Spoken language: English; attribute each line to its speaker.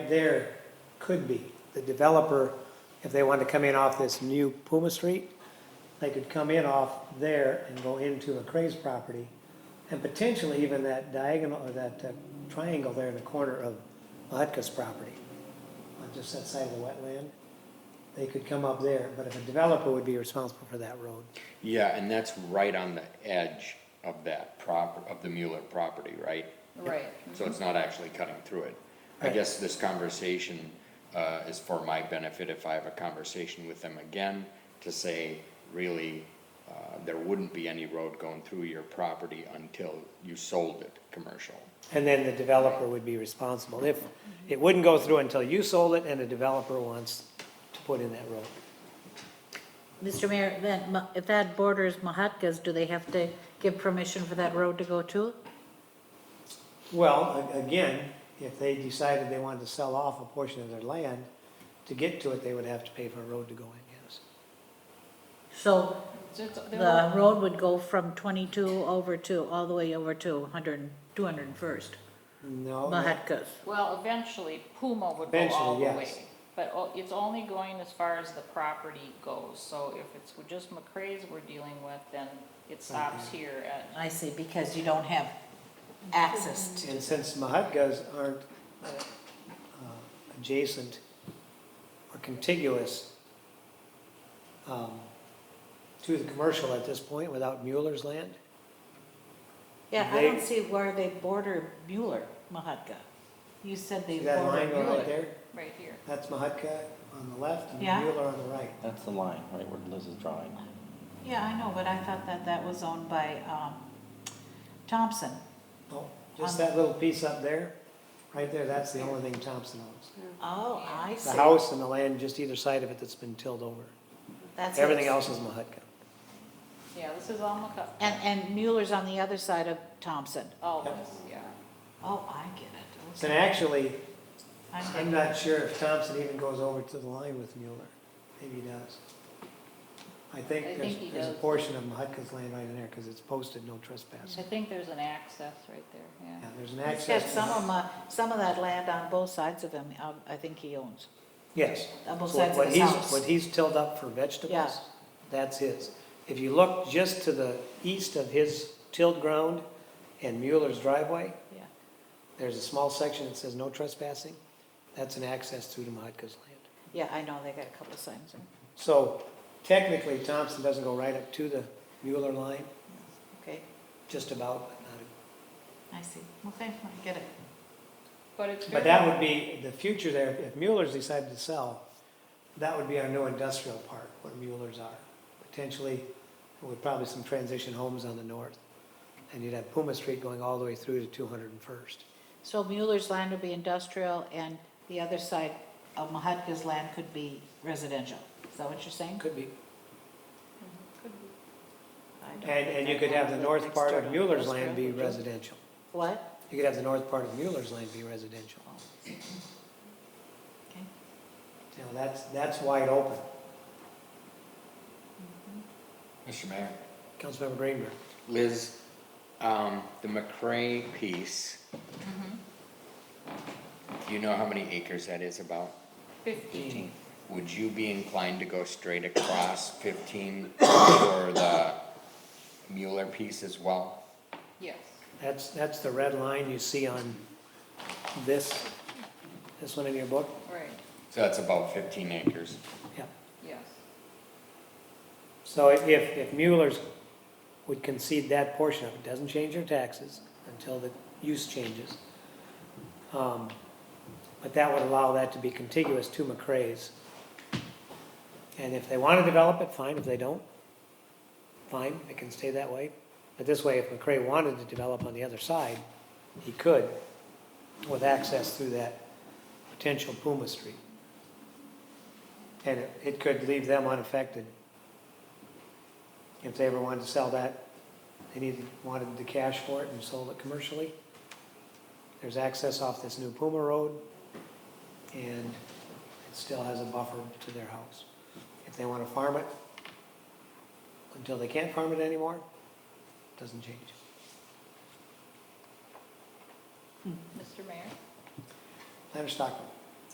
Speaker 1: there could be, the developer, if they wanted to come in off this new Puma Street, they could come in off there and go into McCray's property, and potentially even that diagonal, or that uh, triangle there in the corner of Mahutka's property, on just that side of the wetland, they could come up there, but if a developer would be responsible for that road.
Speaker 2: Yeah, and that's right on the edge of that proper, of the Mueller property, right?
Speaker 3: Right.
Speaker 2: So it's not actually cutting through it. I
Speaker 1: Right.
Speaker 2: guess this conversation, uh, is for my benefit if I have a conversation with them again to say, really, uh, there wouldn't be any road going through your property until you sold it commercial.
Speaker 1: And then the developer would be responsible. If, it wouldn't go through until you sold it and a developer wants to put in that road.
Speaker 3: Mr. Mayor, then, Ma- if that borders Mahatka's, do they have to give permission for that road to go to?
Speaker 1: Well, a- again, if they decided they wanted to sell off a portion of their land, to get to it, they would have to pay for a road to go in, yes.
Speaker 3: So
Speaker 4: So it's- they're all-
Speaker 3: the road would go from 22 over to, all the way over to 100, 201st,
Speaker 1: No, that-
Speaker 3: Mahatka's.
Speaker 4: Well, eventually Puma would go all
Speaker 1: Eventually,
Speaker 4: the
Speaker 1: yes.
Speaker 4: way. But o- it's only going as far as the property goes. So if it's just McCray's we're dealing with, then it stops here at,
Speaker 3: I see, because you don't have access
Speaker 1: and since Mahutkas aren't uh, adjacent or contiguous um, to the commercial at this point without Mueller's land,
Speaker 3: Yeah, I
Speaker 1: They-
Speaker 3: don't see where they border Mueller, Mahatka. You said they
Speaker 1: see that
Speaker 3: border
Speaker 1: line going right
Speaker 3: Mueller.
Speaker 1: there?
Speaker 4: right here.
Speaker 1: That's Mahutka on the left and
Speaker 3: Yeah.
Speaker 1: Mueller on the right.
Speaker 5: That's the line, right, where Liz is drawing.
Speaker 3: Yeah, I know, but I thought that that was owned by um, Thompson.
Speaker 1: Oh, just
Speaker 3: On-
Speaker 1: that little piece up there, right there, that's the only thing Thompson owns.
Speaker 3: Oh, I
Speaker 1: The
Speaker 3: see.
Speaker 1: house and the land just either side of it that's been tilled over.
Speaker 3: That's it.
Speaker 1: Everything else is Mahutka.
Speaker 4: Yeah, this is all McCutcheon.
Speaker 3: And, and Mueller's on the other side of Thompson.
Speaker 4: All
Speaker 1: Yep.
Speaker 4: this, yeah.
Speaker 3: Oh, I get it.
Speaker 1: And
Speaker 3: Okay.
Speaker 1: actually,
Speaker 3: I'm
Speaker 1: I'm
Speaker 3: getting-
Speaker 1: not sure if Thompson even goes over to the line with Mueller. Maybe he does. I
Speaker 4: I
Speaker 1: think there's,
Speaker 4: think he
Speaker 1: there's a
Speaker 4: does.
Speaker 1: portion of Mahutka's land right in there because it's posted no trespassing.
Speaker 4: I think there's an access right there, yeah.
Speaker 1: Yeah, there's an
Speaker 3: He's got
Speaker 1: access.
Speaker 3: some of my, some of that land on both sides of him, um, I think he owns,
Speaker 1: Yes.
Speaker 3: on both
Speaker 1: So
Speaker 3: sides
Speaker 1: what
Speaker 3: of his
Speaker 1: he's-
Speaker 3: house.
Speaker 1: What he's tilled up for
Speaker 3: Yeah.
Speaker 1: vegetables, that's his. If you look just to the east of his tilled ground and Mueller's driveway,
Speaker 3: Yeah.
Speaker 1: there's a small section that says no trespassing. That's an access through to Mahatka's land.
Speaker 3: Yeah, I know, they got a couple of signs. in.
Speaker 1: So technically Thompson doesn't go right up to the Mueller line,
Speaker 3: Okay,
Speaker 1: just about, but not
Speaker 3: I see. Okay, I get it.
Speaker 4: But it's
Speaker 1: But
Speaker 4: very,
Speaker 1: that would be, the future there, if Mueller's decided to sell, that would be our new industrial park, where Mueller's are. Potentially, with probably some transition homes on the north. And you'd have Puma Street going all the way through to two hundred and first.
Speaker 3: So Mueller's land would be industrial and the other side of Mahatka's land could be residential. Is that what you're saying?
Speaker 1: Could be,
Speaker 3: I don't
Speaker 1: and, and you could have the north part of Mueller's land be residential.
Speaker 3: What?
Speaker 1: You could have the north part of Mueller's land be residential.
Speaker 3: Okay.
Speaker 1: You know, that's, that's wide open.
Speaker 2: Mr. Mayor?
Speaker 1: Councilmember Greenberg.
Speaker 2: Liz, um, the McCray piece. Do you know how many acres that is about?
Speaker 4: fifteen,
Speaker 2: Would you be inclined to go straight across fifteen for the Mueller piece as well?
Speaker 4: yes.
Speaker 1: That's, that's the red line you see on this, this one in your book?
Speaker 4: Right,
Speaker 2: So that's about fifteen acres.
Speaker 1: Yeah.
Speaker 4: yes.
Speaker 1: So if, if Mueller's would concede that portion of it, doesn't change their taxes until the use changes. Um, But that would allow that to be contiguous to McCray's. And if they want to develop it, fine, if they don't, fine, it can stay that way. But this way, if McCray wanted to develop on the other side, he could with access through that potential Puma Street. And it- it could leave them unaffected if they ever wanted to sell that, they needed, wanted the cash for it and sold it commercially. There's access off this new Puma Road, and it still has a buffer to their house. If they want to farm it, until they can't farm it anymore, doesn't change.
Speaker 4: Mr. Mayor?
Speaker 1: Leonard Stockman,